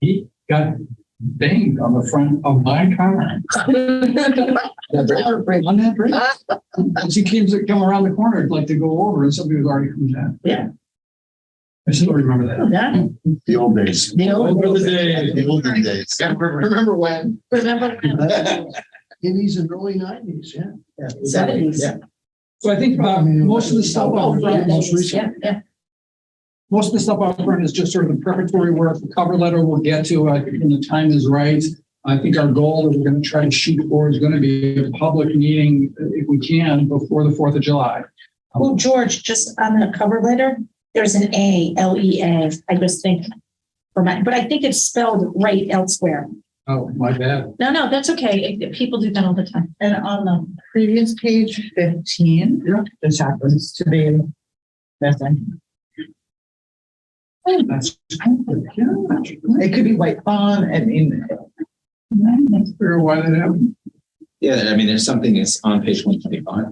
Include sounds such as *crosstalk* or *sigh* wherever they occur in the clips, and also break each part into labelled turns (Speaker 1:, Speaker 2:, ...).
Speaker 1: He got banged on the front of my car. On that bridge. As he came to come around the corner, like to go over and somebody was already coming down.
Speaker 2: Yeah.
Speaker 1: I still remember that.
Speaker 2: Yeah.
Speaker 3: The old days.
Speaker 2: The old-
Speaker 3: The olden days.
Speaker 4: Remember when?
Speaker 2: Remember?
Speaker 1: *laughs*
Speaker 4: Eighties and early nineties, yeah.
Speaker 2: Seventies.
Speaker 1: So I think about most of the
Speaker 5: oh,
Speaker 1: stuff on front, most recent,
Speaker 2: Yeah, yeah.
Speaker 1: most of the stuff on front is just sort of the preparatory work, the cover letter we'll get to, I think when the time is right. I think our goal that we're gonna try to shoot for is gonna be a public meeting, uh, if we can, before the Fourth of July.
Speaker 5: Well, George, just on the cover letter, there's an A, L E A, I just think. For my, but I think it's spelled right elsewhere.
Speaker 1: Oh, my bad.
Speaker 5: No, no, that's okay. It- People do that all the time.
Speaker 2: And on the previous page fifteen.
Speaker 1: Yeah.
Speaker 2: This happens to be. Nothing.
Speaker 1: That's. I
Speaker 2: It could be white font, I mean.
Speaker 1: don't know why that happened.
Speaker 6: Yeah, I mean, there's something that's on page one twenty-five.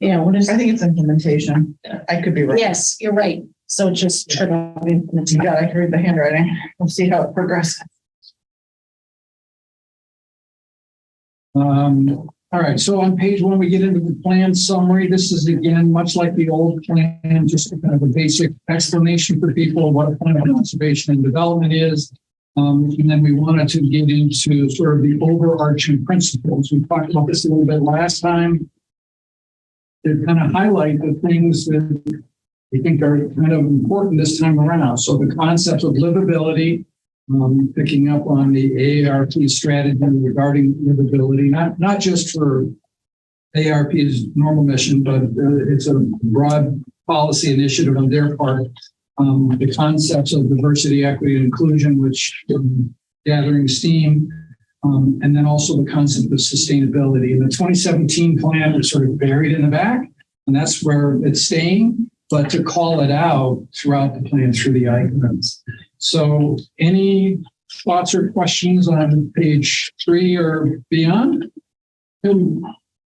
Speaker 2: Yeah, what is? I think it's implementation. I could be wrong.
Speaker 5: Yes, you're right. So just. turn off implementation.
Speaker 2: Yeah, I can read the handwriting. We'll see how it progresses.
Speaker 1: Um, all right, so on page one, we get into the plan summary. This is again, much like the old plan, just kind of a basic explanation for people of what a plan of conservation and development is. Um, and then we wanted to get into sort of the overarching principles. We talked about this a little bit last time. To kind of highlight the things that we think are kind of important this time around. So the concepts of livability, um, picking up on the ARP strategy regarding livability, not, not just for ARP's normal mission, but uh, it's a broad policy initiative on their part. Um, the concepts of diversity, equity, and inclusion, which um, gathering steam, um, and then also the concept of sustainability. And the 2017 plan was sort of buried in the back, and that's where it's staying, but to call it out throughout the plan through the icons. So any thoughts or questions on page three or beyond? Um,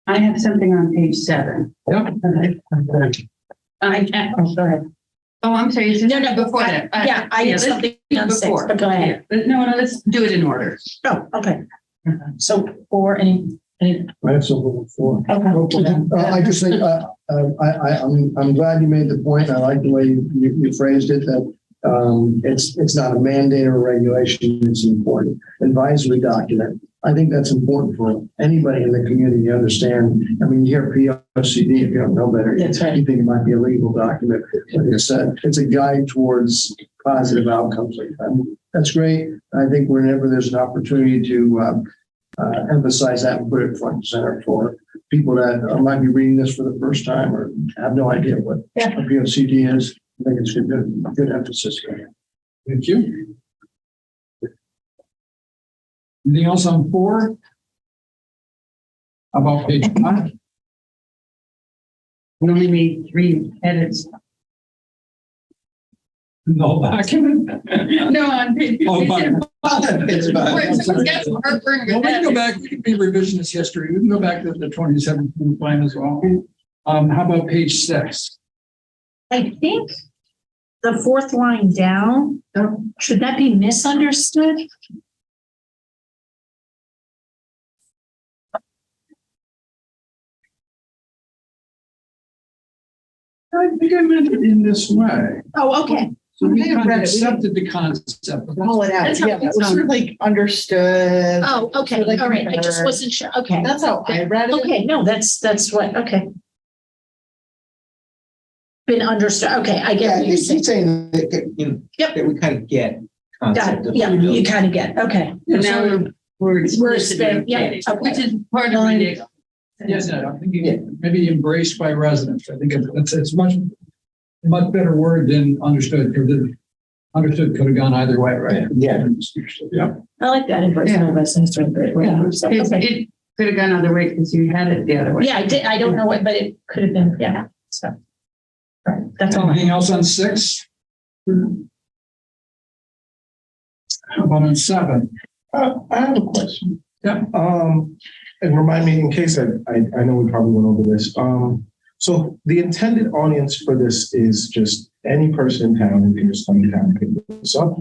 Speaker 7: I have something on page seven.
Speaker 1: Yep.
Speaker 7: Uh, I can't,
Speaker 5: Oh, go ahead.
Speaker 7: oh, I'm sorry. is this-
Speaker 5: No, no, before
Speaker 7: Uh,
Speaker 5: that. Yeah, I have
Speaker 7: let's
Speaker 5: something
Speaker 7: do
Speaker 5: on six,
Speaker 7: before.
Speaker 5: but go ahead.
Speaker 7: Yeah, No, no, let's do it in order.
Speaker 5: Oh, okay. So, or any, any,
Speaker 3: I have something before.
Speaker 5: okay.
Speaker 4: Uh, I just think, uh, uh, I, I, I'm, I'm glad you made the point. I like the way you, you phrased it, that, um, it's, it's not a mandate or regulation. It's an important advisory document. I think that's important for anybody in the community to understand. I mean, you hear POCD, if you don't know better.
Speaker 5: That's right.
Speaker 4: You think it might be a legal document, but it's a, it's a guide towards positive outcomes like that. That's great. I think whenever there's an opportunity to, uh, uh, emphasize that and put it front and center for people that uh, might be reading this for the first time or have no idea what a
Speaker 5: Yeah.
Speaker 4: POCD is. I think it's a good, good emphasis.
Speaker 1: Thank you. Anything else on four? About page five?
Speaker 7: We only made three edits.
Speaker 1: No Oh, document?
Speaker 7: No, on page.
Speaker 1: Oh, fine.
Speaker 6: It's fine.
Speaker 7: Wait, someone got some heartburn
Speaker 1: Well,
Speaker 7: with
Speaker 1: we can
Speaker 7: that.
Speaker 1: go back, we can be revisionist history. We can go back to the twenty seventeen plan as well. Um, how about page six?
Speaker 5: I think the fourth line down, should that be misunderstood?
Speaker 1: I think I meant it in this way.
Speaker 5: Oh, okay.
Speaker 1: So we
Speaker 2: I have
Speaker 1: kind of
Speaker 2: read it. We didn't-
Speaker 1: accepted the concept. but that's-
Speaker 2: Pull it out.
Speaker 5: That's how
Speaker 2: Yeah,
Speaker 5: it
Speaker 2: it was sort of like understood.
Speaker 5: Oh, okay. All right. I just wasn't sure. Okay.
Speaker 2: That's how I read it.
Speaker 5: Okay, no, that's, that's what, okay. Been understood, okay, I get
Speaker 6: Yeah,
Speaker 5: what you're
Speaker 6: he's
Speaker 5: saying.
Speaker 6: he's saying that, that, you know,
Speaker 5: Yep.
Speaker 6: that we kind of get.
Speaker 5: Got
Speaker 6: concept
Speaker 5: it,
Speaker 6: of
Speaker 5: yeah,
Speaker 6: livability.
Speaker 5: you kind of get, okay.
Speaker 7: And now we're- we're.
Speaker 5: We're
Speaker 7: explicit,
Speaker 5: expand- yeah, okay.
Speaker 7: Which is part of
Speaker 2: Nine.
Speaker 7: it.
Speaker 1: Yes, no, I'm thinking maybe embraced by residents. I think it's, it's much, much better word than understood, because it- understood could have gone either way, right?
Speaker 6: Yeah.
Speaker 1: Yeah.
Speaker 5: I like that embrace
Speaker 7: Yeah.
Speaker 5: my residents during great way.
Speaker 7: Yeah.
Speaker 5: So,
Speaker 7: It's-
Speaker 5: okay.
Speaker 7: It could have gone other way because you had it the other way.
Speaker 5: Yeah, I did, I don't know what, but it could have been, yeah, so. All right, That's all. I
Speaker 1: Anything else on six? How about on seven?
Speaker 3: Uh, I have a question.
Speaker 1: Yeah.
Speaker 3: Um, and remind me in case I, I, I know we probably went over this. Um, so the intended audience for this is just any person in town, and they're just coming down and picking this up.